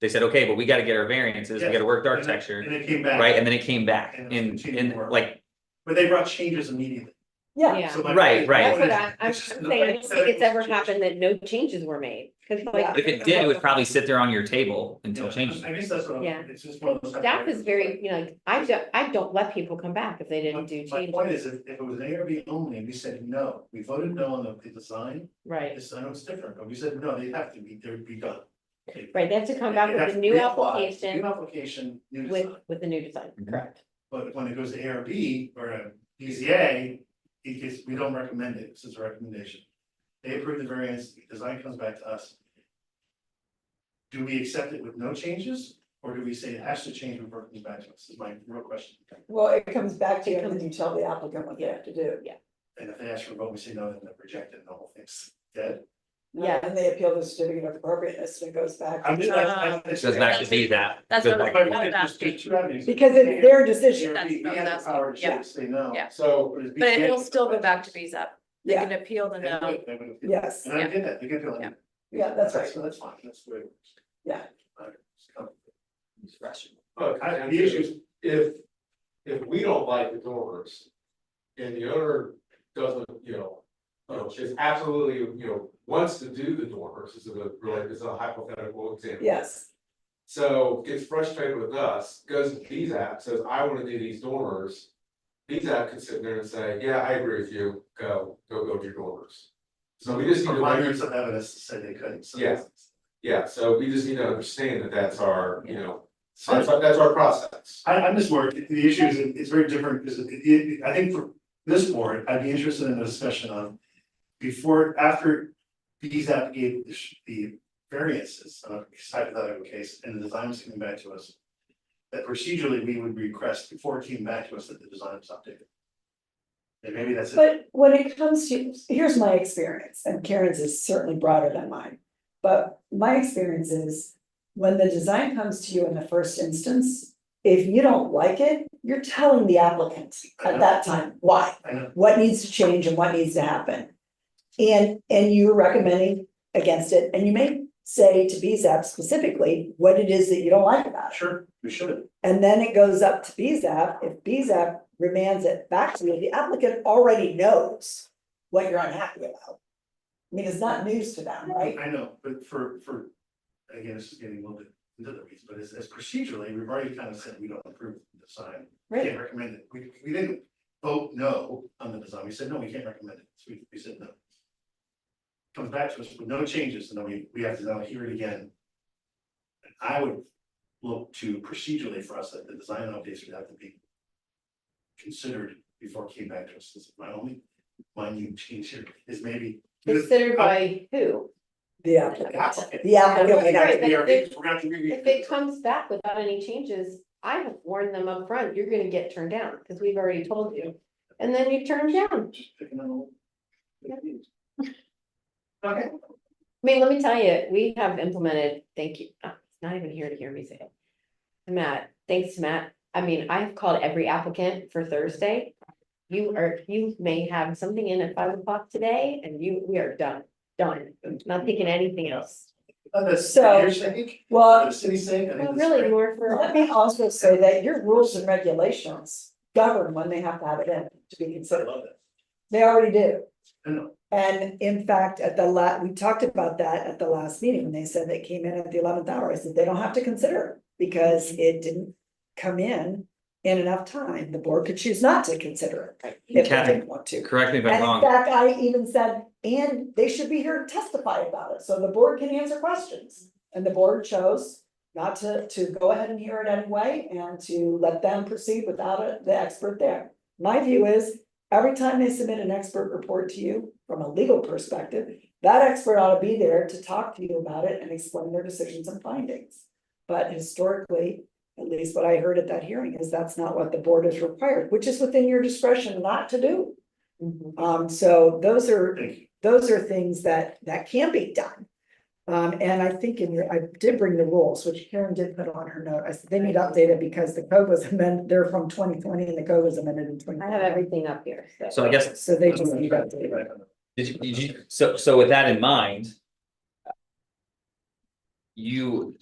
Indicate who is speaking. Speaker 1: They said, okay, but we gotta get our variances, we
Speaker 2: Yes,
Speaker 1: gotta work the
Speaker 2: and it-
Speaker 1: architecture,
Speaker 2: And it came back.
Speaker 1: right? And then it came back
Speaker 2: And it
Speaker 1: and,
Speaker 2: continued
Speaker 1: and
Speaker 2: work.
Speaker 1: like,
Speaker 2: But they brought changes immediately.
Speaker 3: Yeah,
Speaker 2: So my-
Speaker 1: Right, right.
Speaker 3: that's what I, I'm I'm
Speaker 2: It's just-
Speaker 3: saying, I don't think it's ever happened that no changes were made, cause like.
Speaker 1: if it did, it would probably sit there on your table until
Speaker 2: Yeah,
Speaker 1: changes.
Speaker 2: I guess that's what
Speaker 3: Yeah.
Speaker 2: I'm, it's just one of those.
Speaker 3: Staff is very, you know, I don't, I don't let people come back if they didn't do
Speaker 2: My point
Speaker 3: changes,
Speaker 2: is, if, if it was ARB only, and we said no, we voted no on the, the design, the
Speaker 3: right,
Speaker 2: design was different, but we said no, they have to be, they'd be done. They-
Speaker 3: right, they have to come
Speaker 2: they
Speaker 3: back
Speaker 2: have
Speaker 3: with a
Speaker 2: to
Speaker 3: new
Speaker 2: reapply, New
Speaker 3: application
Speaker 2: application, new
Speaker 3: with,
Speaker 2: design,
Speaker 3: with the new design, correct?
Speaker 2: but when it goes to ARB or a BZA, it gets, we don't recommend it, this is a recommendation. They approve the variance, the design comes back to us. Do we accept it with no changes, or do we say it has to change before it comes back to us, is my real question.
Speaker 4: Well, it comes back to you,
Speaker 3: It
Speaker 4: and then you tell the applicant what they have to do.
Speaker 2: And if they ask for a vote, we say no, then they reject it, and the whole thing's dead.
Speaker 4: Yeah. And they appeal the certificate of appropriateness, and it goes back.
Speaker 2: I'm just- I- I- it's-
Speaker 1: Goes back to be that.
Speaker 5: That's
Speaker 1: Goes
Speaker 5: what
Speaker 1: back
Speaker 2: My
Speaker 1: to
Speaker 2: point
Speaker 1: be-
Speaker 2: is there's- there's two avenues.
Speaker 4: Because it's their decision,
Speaker 2: Yeah, We we have the power to
Speaker 5: Yeah.
Speaker 2: choose, say no.
Speaker 5: Yeah.
Speaker 2: So. is
Speaker 5: But it'll
Speaker 2: BZA
Speaker 5: still go back to BZAP. They
Speaker 4: yeah,
Speaker 5: can appeal the
Speaker 2: They would-
Speaker 5: no.
Speaker 2: they would-
Speaker 4: yes,
Speaker 2: And I get that, they can feel
Speaker 5: Yeah.
Speaker 2: it.
Speaker 4: yeah, that's right,
Speaker 2: So that's fine, that's great.
Speaker 4: Yeah.
Speaker 6: Look,
Speaker 2: I-
Speaker 6: I,
Speaker 2: the issues,
Speaker 6: if, if we don't like the doors. And the owner doesn't, you know, you know, is absolutely, you know, wants to do the dormers, this is a really, this is a hypothetical example.
Speaker 4: yes,
Speaker 6: So gets frustrated with us, goes to these app, says, I wanna do these dormers. These app could sit there and say, yeah, I agree with you, go, go build your dormers. So we just need to.
Speaker 2: Provide
Speaker 6: recognize-
Speaker 2: years of evidence to say they couldn't, so.
Speaker 6: Yeah. Yeah, so we just need to understand that that's our, you know,
Speaker 2: So
Speaker 6: that's, our- that's our process.
Speaker 2: I, I'm just worried, the issue is, it's very different, because it, it, I think for this board, I'd be interested in a discussion on. Before, after these app gave the sh- the variances, uh, hypothetical case, and the design was coming back to us. That procedurally, we would request before it came back to us that the design was updated. And maybe that's. it.
Speaker 4: but when it comes to, here's my experience, and Karen's is certainly broader than mine. But my experience is, when the design comes to you in the first instance, if you don't like it, you're telling the applicant at that time why.
Speaker 2: I know,
Speaker 4: what needs to change and what needs to happen. And, and you're recommending against it, and you may say to BZAP specifically what it is that you don't like about it.
Speaker 2: sure, we should,
Speaker 4: And then it goes up to BZAP, if BZAP remands it back to you, the applicant already knows what you're unhappy about. I mean, it's not news to them, right?
Speaker 2: I know, but for, for, again, this is getting a little bit into the weeds, but as, as procedurally, we've already kind of said we don't approve the design. We Can't recommend it, we, we didn't vote no on the design, we said, no, we can't recommend it, so we, we said no. Comes back to us with no changes, and then we, we have to now hear it again. And I would look to procedurally for us that the design updates would have to be. Considered before it came back to us, This is my only, my new change here is maybe.
Speaker 3: Considered by who?
Speaker 4: The applicant, the applicant may not,
Speaker 3: Right, but
Speaker 2: We're
Speaker 3: if it-
Speaker 2: gonna have to re-
Speaker 3: If it comes back without any changes, I have warned them up front. you're gonna get turned down, cause we've already told you. And then you turn 'em down.
Speaker 2: Just picking on old-
Speaker 3: Yeah.
Speaker 2: Okay,
Speaker 3: I mean, let me tell you, we have implemented, thank you, oh, it's not even here to hear me say it. Matt, thanks, Matt. I mean, I've called every applicant for Thursday. You are, you may have something in at five o'clock today and you, we are done, done, not thinking anything else.
Speaker 2: Uh, that's
Speaker 4: So-
Speaker 2: your sake,
Speaker 4: well,
Speaker 2: the city's sake, I
Speaker 3: Well,
Speaker 2: think.
Speaker 3: really
Speaker 2: that's
Speaker 3: more for.
Speaker 4: let me also say that your rules and regulations govern when they have to have it in to be
Speaker 2: great. I
Speaker 4: considered,
Speaker 2: love that,
Speaker 4: they already do.
Speaker 2: I know,
Speaker 4: And in fact, at the la, we talked about that at the last meeting, when they said they came in at the eleventh hour, I said they don't have to consider. it Because it didn't come in in enough time, the board could choose not to consider it if they
Speaker 1: Kathy,
Speaker 4: didn't want to.
Speaker 1: Correct me if I'm
Speaker 4: And in
Speaker 1: wrong.
Speaker 4: fact, I even said, and they should be here to testify about it, so the board can answer questions. And the board chose not to, to go ahead and hear it anyway, and to let them proceed without a- the expert there. My view is, every time they submit an expert report to you, from a legal perspective, that expert ought to be there to talk to you about it and explain their decisions and findings. But historically, at least what I heard at that hearing is that's not what the board is required, which is within your discretion not to do.
Speaker 3: Mhm.
Speaker 4: Um, so those are,
Speaker 2: thank you,
Speaker 4: those are things that, that can be done. Um, and I think in your, I did bring the rules, which Karen did put on her note, I said, they need updated because the code was amended, they're from twenty twenty and the code was amended in twenty.
Speaker 3: I have everything up here, so.
Speaker 1: So I guess
Speaker 4: So they just need updated.
Speaker 1: Did you, did you, so, so with that in mind. You,